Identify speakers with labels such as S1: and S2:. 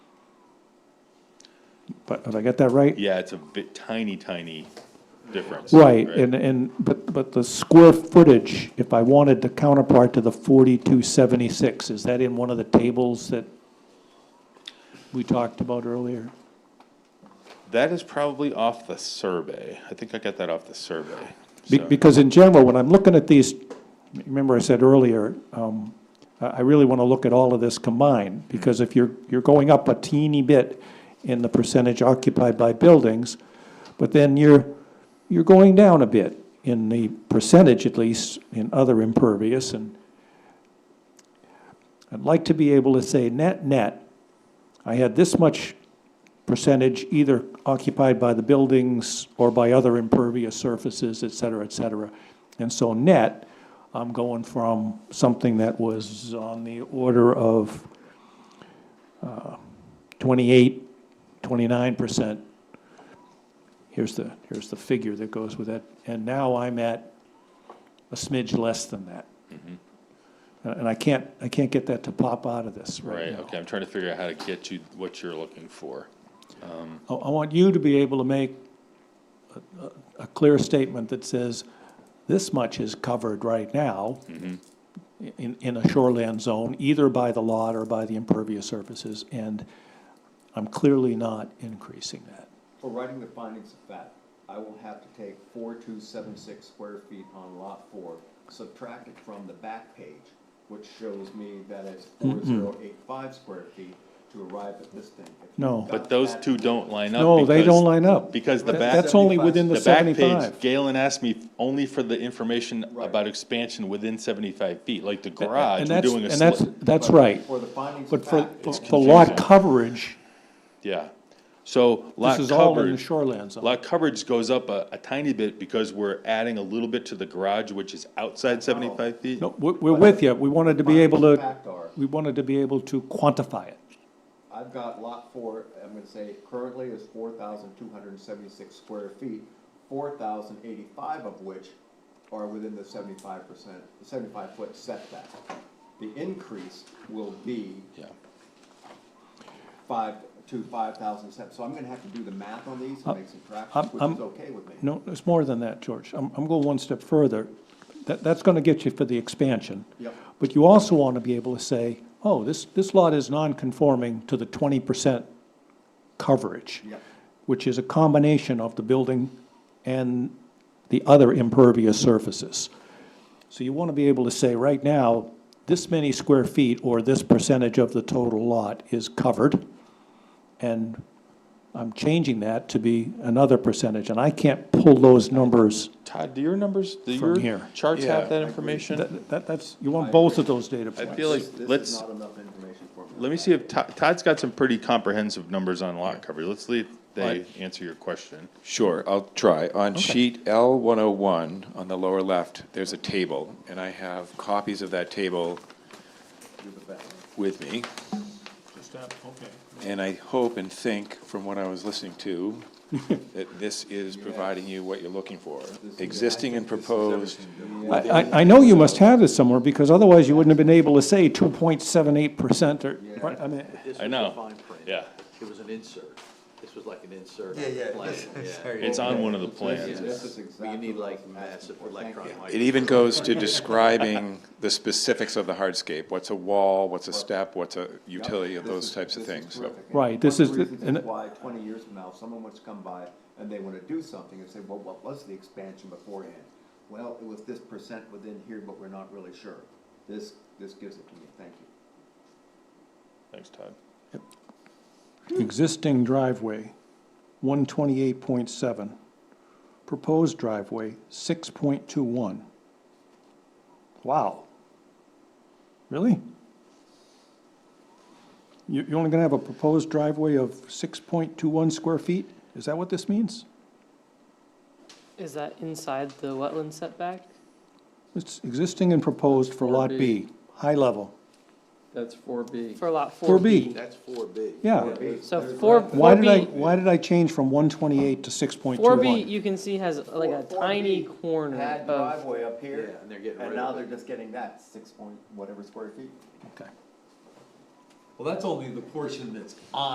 S1: But have I got that right?
S2: Yeah, it's a bit tiny, tiny difference.
S1: Right, and, and, but, but the square footage, if I wanted the counterpart to the forty-two seventy-six, is that in one of the tables that we talked about earlier?
S2: That is probably off the survey. I think I got that off the survey.
S1: Be-
S2: so.
S1: Because in general, when I'm looking at these, remember I said earlier, um, I I really want to look at all of this combined, because if you're, you're going up a teeny bit in the percentage occupied by buildings, but then you're, you're going down a bit in the percentage at least in other impervious, and I'd like to be able to say net, net, I had this much percentage either occupied by the buildings or by other impervious surfaces, et cetera, et cetera. And so net, I'm going from something that was on the order of uh, 28, 29%. Here's the, here's the figure that goes with that. And now I'm at a smidge less than that. And and I can't, I can't get that to pop out of this right
S2: Right,
S1: now.
S2: okay, I'm trying to figure out how to get you what you're looking for.
S1: I, I want you to be able to make a- a- a clear statement that says, this much is covered right now
S2: Mm-hmm.
S1: in, in a shoreland zone, either by the lot or by the impervious surfaces, and I'm clearly not increasing that.
S3: For writing the findings of fact, I will have to take four two seven six square feet on lot four, subtract it from the back page, which shows me that it's four zero eight five square feet to arrive at this thing. If you've
S1: No.
S3: got
S2: But those
S3: that-
S2: two don't line up.
S1: No, they
S2: because-
S1: don't line up.
S2: Because the
S1: That-
S2: back,
S1: That's only within the
S2: the back page,
S1: 75.
S2: Galen asked me only for the information
S3: Right.
S2: about expansion within seventy-five feet, like the
S1: And
S2: garage, we're
S1: that's-
S2: doing a
S1: And that's,
S2: slit.
S1: that's
S3: but
S1: right.
S3: For the findings
S1: But
S3: of
S1: for,
S3: fact.
S1: for
S3: it's
S1: for lot
S2: confusing.
S1: coverage,
S2: Yeah, so lot
S1: this is all in the
S2: coverage,
S1: shoreland zone.
S2: lot coverage goes up a, a tiny bit because we're adding a little bit to the garage, which is outside seventy-five feet.
S1: No, we're, we're with you. We wanted to be able
S3: findings of
S1: to,
S3: fact are,
S1: we wanted to be able to quantify it.
S3: I've got lot four, I'm gonna say currently is four thousand two hundred and seventy-six square feet, four thousand eighty-five of which are within the seventy-five percent, seventy-five foot setback. The increase will be
S2: Yeah,
S3: five to five thousand steps, so I'm gonna have to do the math on these and make some
S1: Uh, I'm-
S3: subtractions, which
S1: I'm-
S3: is okay with me.
S1: No, it's more than that, George. I'm, I'm going one step further. That, that's gonna get you for the expansion.
S3: Yep.
S1: But you also wanna be able to say, oh, this, this lot is non-conforming to the twenty percent coverage.
S3: Yep.
S1: Which is a combination of the building and the other impervious surfaces. So you wanna be able to say, right now, this many square feet or this percentage of the total lot is covered. And I'm changing that to be another percentage, and I can't pull those numbers.
S2: Todd, do your numbers, do
S1: From
S2: your
S1: here.
S2: charts
S4: Yeah,
S2: have that
S3: agree.
S2: information?
S1: That, that- that's, you want both of those data
S2: I
S1: points.
S2: feel like,
S3: This- This
S2: let's.
S3: is not enough information for me.
S2: Let me see if Todd, Todd's got some pretty comprehensive numbers on lot coverage. Let's see if they answer your question.
S4: Sure, I'll try. On sheet L one oh one, on the lower left, there's a table, and I have copies of that table with me. And I hope and think, from what I was listening to, that this is providing you what you're looking for. Existing and proposed,
S1: I, I- I know you must have this somewhere, because otherwise you wouldn't have been able to say two point seven eight percent or, right, I mean,
S5: This
S2: I
S5: was
S2: know.
S5: the fine print.
S2: Yeah,
S5: It was an insert. This was like an insert. Yeah, yeah.
S2: it's on one of the plans.
S3: This is
S5: You
S3: exactly
S5: need
S3: what
S5: like
S3: I'm asking
S5: massive
S3: for. Thank
S5: electron
S3: you.
S5: micro.
S4: it even goes to describing the specifics of the hardscape. What's a wall, what's a step, what's a utility of
S3: This
S4: those
S3: is-
S4: types of
S3: this is
S4: things, so.
S3: terrific. And
S1: Right, this is
S3: One
S1: the-
S3: of the reasons
S1: and-
S3: is why twenty years from now, if someone wants to come by and they wanna do something and say, well, what was the expansion beforehand? Well, it was this percent within here, but we're not really sure. This, this gives it to me, thank you.
S2: Thanks, Todd.
S1: existing driveway, one twenty-eight point seven. Proposed driveway, six point two one. Wow. Really? You, you're only gonna have a proposed driveway of six point two one square feet? Is that what this means?
S6: Is that inside the wetland setback?
S1: It's existing and proposed for Lot B, high level,
S7: That's four B.
S6: For lot four?
S1: for B,
S5: That's four B.
S1: yeah.
S6: So four,
S1: Why
S6: four
S1: did I,
S6: B,
S1: why did I change from one twenty-eight to six point two
S6: four B,
S1: one?
S6: you can see has like a
S3: 4B
S6: tiny corner
S3: Had
S6: of,
S3: driveway up here,
S5: Yeah, and they're getting
S3: and
S5: rid
S3: now
S5: of
S3: they're
S5: it.
S3: just getting that six point whatever square feet.
S1: Okay.
S8: Well, that's only the portion that's on.